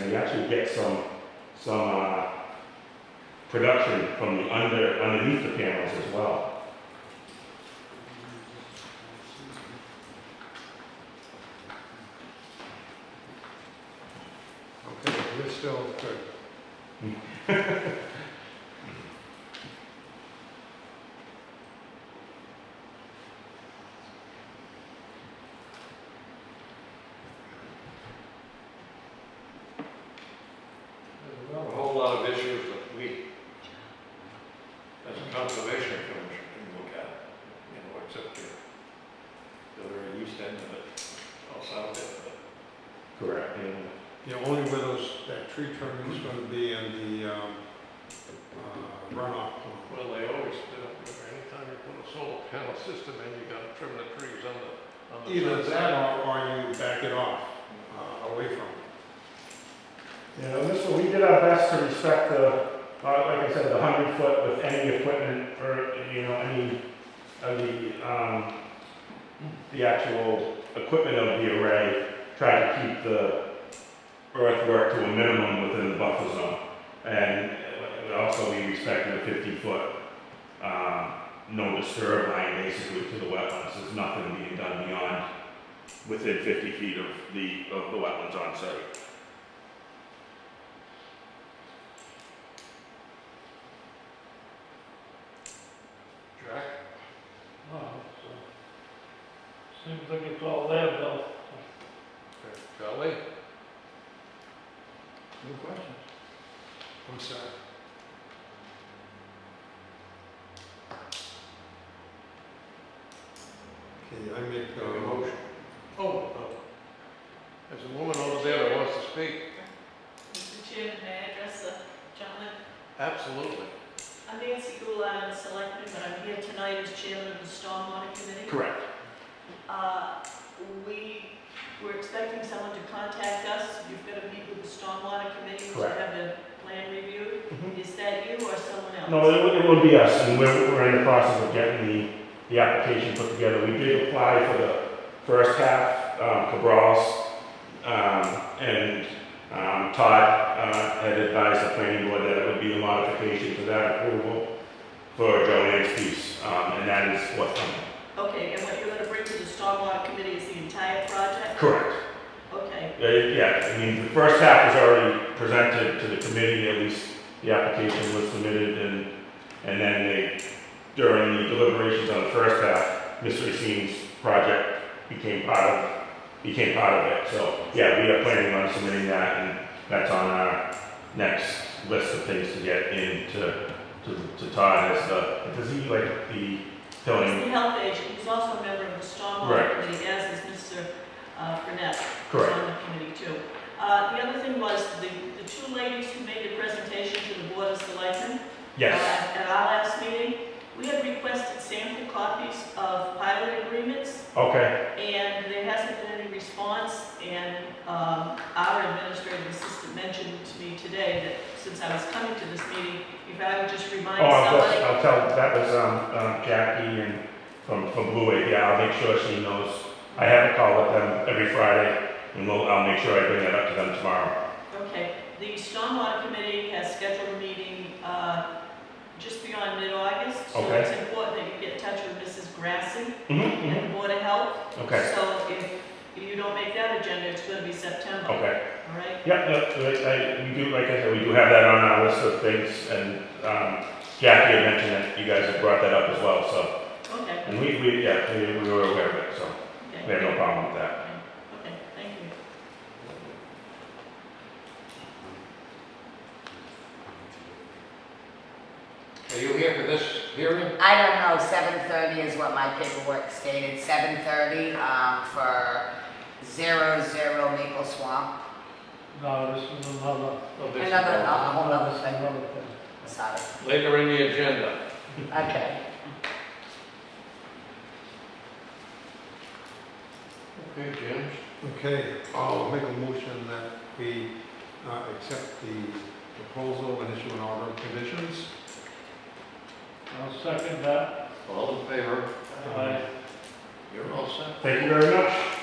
and you actually get some, some, uh, production from the under, underneath the panels as well. Okay, we're still good. A whole lot of issues that we, as a conservation commission, can look at, you know, except the, the very east end of it, or south end of it. Correct. And Yeah, only where those, that tree trimming is gonna be in the um, uh, runoff plan. Well, they always do, anytime you put a solar panel system in, you gotta trim the trees on the, on the. Either sides. that or, or you back it off, uh, away from it. You know, this, we did our best to respect the, uh, like I said, the hundred foot with any equipment or, you know, any of the, um, the actual equipment of the array, try to keep the earthwork to a minimum within the buffer zone. And uh, also we respected the fifty foot, um, no disturb line basically to the wetlands. There's nothing being done beyond within fifty feet of the, of the wetlands on site. Jack? Oh, Seems like it's all there, Bill. Okay. Charlie? No questions. What's that? Okay, I make Have a a motion. motion. Oh, oh. There's a woman over there that wants to speak. Mr. Chairman, may I address the gentleman? Absolutely. I'm Nancy Goulart, I'm a selectman, but I'm here tonight as chairman of the Stormwater Committee. Correct. Uh, We were expecting someone to contact us. You've got to meet with the Stormwater Committee to Correct. have the plan reviewed. Mhm. Is that you or someone else? No, it would, it would be us, and we're, we're in the process of getting the, the application put together. We did apply for the first half, um, Cabral's, um, and, um, Todd, uh, had advised the planning board that it would be a modification to that approval for Joanne's piece, um, and that is what, Okay, and what you're going to bring to the Stormwater Committee is the entire project? correct. Okay, Uh, Yeah, I mean, the first half was already presented to the committee, at least the application was submitted, and, and then they, during the deliberations on the first half, Mr. Racine's project became part of, became part of it, so, yeah, we are planning on submitting that, and that's on our next list of things to get in to, to, to Todd as the, does he like the he's filling? the health agent, he's also a member of the Right. Stormwater Committee, as is Mr. uh, Burnett. Correct. on the committee too. Uh, The other thing was, the, the two ladies who made the presentation to the Board of Selectmen Yes, uh, at our last meeting, we had requested sample copies of pilot agreements, okay, and there hasn't been any response, and um, our administrative assistant mentioned to me today that since I was coming to this meeting, if I would just oh, remind I'll, somebody I'll tell, that was, um, um, Jackie and from, from Blue Wave, yeah, I'll make sure she knows. I have a call with them every Friday, and we'll, I'll make sure I bring that up to them tomorrow. Okay, the Stormwater Committee has scheduled a meeting uh, just beyond mid-August. So Okay. it's important that you get in touch with Mrs. Grassi Mm-hmm, and the Board of Health. okay, So if you don't make that agenda, it's going to be September, all okay. right? Yeah, yeah, I, I, we do, like I said, we do have that on our list of things, and, um, Jackie had mentioned that you guys have brought that up as well, so. Okay, And we, we, yeah, we, we were aware of it, so we have okay, no problem with that. okay, thank you. Are you here for this hearing? I don't know, seven thirty is what my paperwork stated, seven thirty, um, for zero zero Maple Swamp. No, this is another, Well, this is Another, a whole other this is thing, another thing. sorry, Later in the agenda. okay. Okay, James. Okay, I'll make a motion that we uh, accept the proposal and issue an order of conditions. I'll second that. All in favor? Aye. You're all set. Thank you very much.